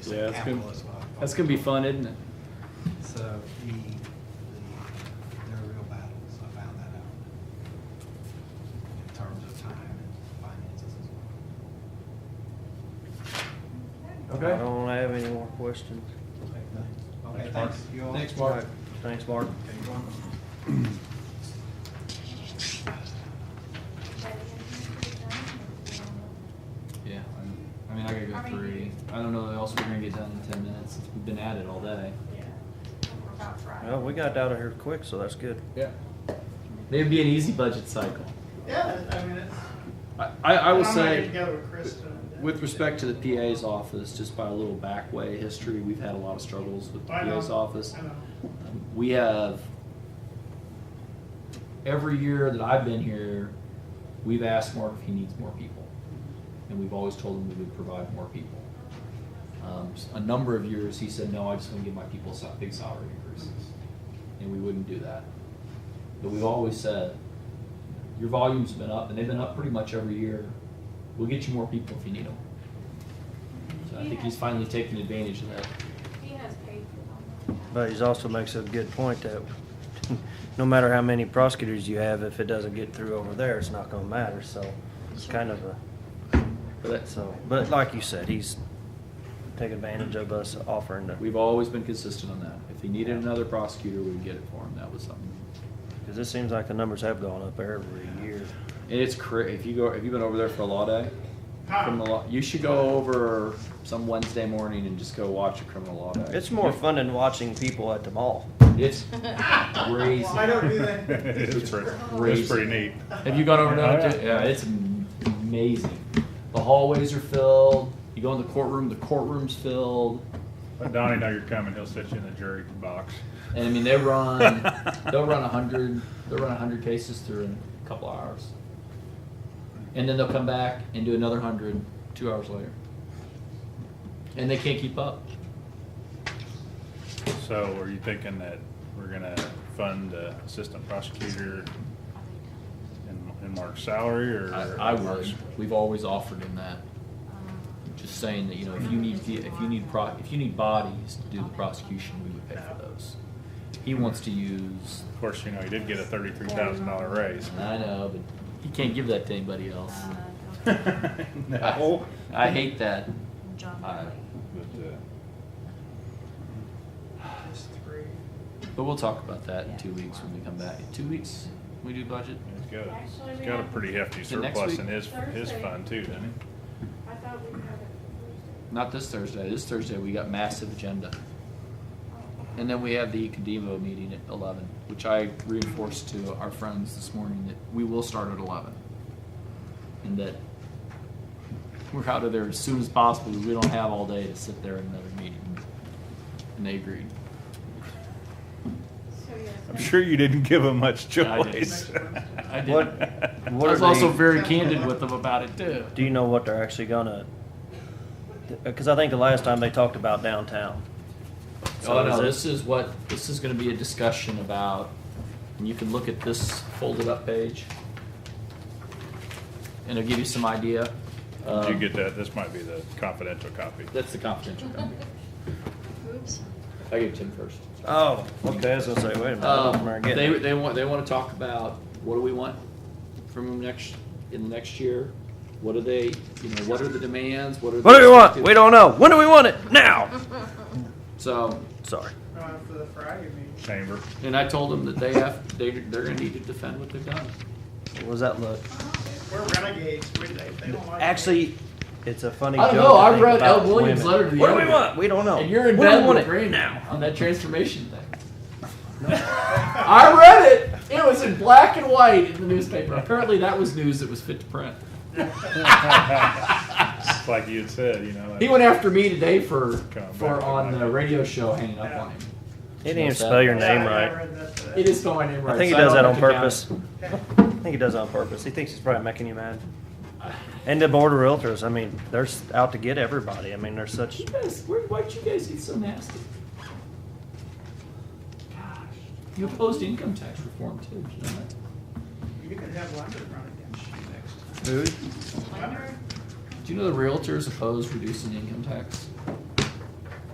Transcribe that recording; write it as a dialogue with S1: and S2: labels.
S1: It's
S2: Yeah,
S1: like
S2: that's
S1: capital
S2: gonna-
S1: is what I thought.
S2: That's gonna be fun, isn't it?
S1: So the, the, they're a real battles, I found that out. In terms of time and finances as well.
S3: I don't have any more questions.
S1: Okay, thanks. Okay,
S3: Thanks, Mark.
S1: thanks, you all.
S3: All right, Thanks, Mark.
S1: Okay, you're welcome.
S2: Yeah, I'm- I mean, I gotta go through. I don't know what else we're gonna get done in ten minutes. We've been at it all day.
S3: Well, we got out of here quick, so that's good.
S2: Yeah. It'd be an easy budget cycle.
S4: Yeah, I mean, it's.
S2: I, I, I will
S4: I'm ready to
S2: say,
S4: go with Krista and then-
S2: with respect to the PA's office, just by a little back way history, we've had a lot of struggles with the
S4: I know,
S2: PA's office.
S4: I know.
S2: We have, every year that I've been here, we've asked Mark if he needs more people. And we've always told him we would provide more people. Um, s- a number of years, he said, no, I just want to give my people some big salary increases. And we wouldn't do that. But we've always said, your volume's been up, and they've been up pretty much every year. We'll get you more people if you need them. So I think he's finally taking advantage of that.
S5: He has paid for
S3: But he also makes a good point that no matter how many prosecutors you have, if it doesn't get through over there, it's not gonna matter, so it's kind of a,
S2: But that's,
S3: so, but like you said, he's taking advantage of us offering to,
S2: We've always been consistent on that. If he needed another prosecutor, we'd get it for him. That was something.
S3: because it seems like the numbers have gone up every year.
S2: And it's cra- if you go, if you've been over there for a law day, criminal law, you should go over some Wednesday morning and just go watch a criminal law day.
S3: It's more fun than watching people at the mall.
S2: It's crazy.
S4: I don't do that.
S6: It's pretty,
S2: Crazy.
S6: it's pretty neat.
S2: Have you gone over
S6: Oh,
S2: there?
S6: yeah.
S2: Yeah, it's am- amazing. The hallways are filled. You go in the courtroom, the courtroom's filled.
S6: Let Donnie know you're coming, he'll sit you in the jury box.
S2: And I mean, they run, they'll run a hundred, they'll run a hundred cases through in a couple hours, and then they'll come back and do another hundred two hours later, and they can't keep up.
S6: So are you thinking that we're gonna fund the assistant prosecutor in, in Mark's salary or?
S2: I, I would. We've always offered him that. Just saying that you know, if you need if you need pro, if you need bodies to do the prosecution, we would pay for those. He wants to use.
S6: Of course, you know, he did get a thirty-three thousand dollar raise.
S2: I know, but he can't give that to anybody else.
S6: Um,
S5: uh,
S6: No.
S2: I, I hate that.
S5: John
S2: I-
S6: But, uh,
S4: It's three.
S2: But we'll talk about that in two weeks when we come back. In two weeks, we do budget.
S6: He's got, a-
S5: Actually,
S6: he's
S5: we
S6: got a
S5: have-
S6: pretty hefty
S2: Is it next
S6: surplus
S2: week?
S6: in his, his
S5: Thursday.
S6: fund too, doesn't he?
S5: I thought we had it.
S2: Not this Thursday. This Thursday we got massive agenda,
S5: Oh,
S2: and then we have the Cademo meeting at eleven, which I reinforced to our friends this morning that we will start at eleven, and that we're out of there as soon as possible because we don't have all day to sit there in another meeting. And they agreed.
S5: So, yes.
S6: I'm sure you didn't give him much
S2: Yeah, I didn't.
S6: choice.
S2: I did.
S3: What,
S2: I
S3: what
S2: was
S3: are
S2: also
S3: they,
S2: very candid with them about it too.
S3: do you know what they're actually gonna? Because I think the last time they talked about downtown.
S2: Oh,
S3: So is
S2: no,
S3: it-
S2: this is what, this is gonna be a discussion about, and you can look at this folded up page. And it'll give you some idea.
S6: Did you
S2: Um,
S6: get that? This might be the confidential copy.
S2: That's the confidential copy.
S5: Oops.
S2: I gave Tim first.
S3: Oh, okay, I was gonna say, wait a minute, I don't
S2: Um,
S3: remember
S2: they,
S3: getting it.
S2: they want, they wanna talk about, what do we want from them next, in the next year? What are they, you know, what are the demands, what are?
S3: What do
S2: the
S3: we want?
S2: expected-
S3: We don't know. When do we want it? Now!
S2: So,
S3: Sorry.
S4: Uh, for the Friday meeting.
S6: Chamber.
S2: and I told them that they have, they, they're gonna need to defend what they've done.
S3: What was that look?
S4: We're renegades, we, they, they don't like.
S3: Actually, it's a funny
S2: I
S3: joke.
S2: don't know,
S3: to
S2: I
S3: think
S2: read
S3: about
S2: L. Williams'
S3: women.
S2: letter to the
S3: What do we
S2: editor.
S3: want? We don't know.
S2: And you're in
S3: When do Oh, we
S2: bed
S3: want
S2: with
S3: it?
S2: Green
S3: Now.
S2: now on that transformation thing. I read it. It was in black and white in the newspaper. Apparently, that was news that was fit to print.
S6: It's like you had said, you know.
S2: He went after me today for
S6: Come
S2: for
S6: back.
S2: on the radio show hanging up on him.
S3: He didn't even spell your
S4: Yeah,
S3: name
S4: I- I
S3: right.
S4: read that today.
S2: It is spelled my name right.
S3: I think he
S2: so
S3: does
S2: don't
S3: that on
S2: have to count
S3: purpose.
S2: it.
S3: I think he does that on purpose. He thinks he's probably making you mad. And the board of realtors, I mean, they're s- out to get everybody. I mean, they're such,
S2: You guys, where, why'd you guys get so nasty? Gosh, you opposed income tax reform too. did you know that?
S4: You could have Leonard run against you next
S3: who?
S4: time. Leonard?
S2: Do you know the realtors oppose reducing income tax?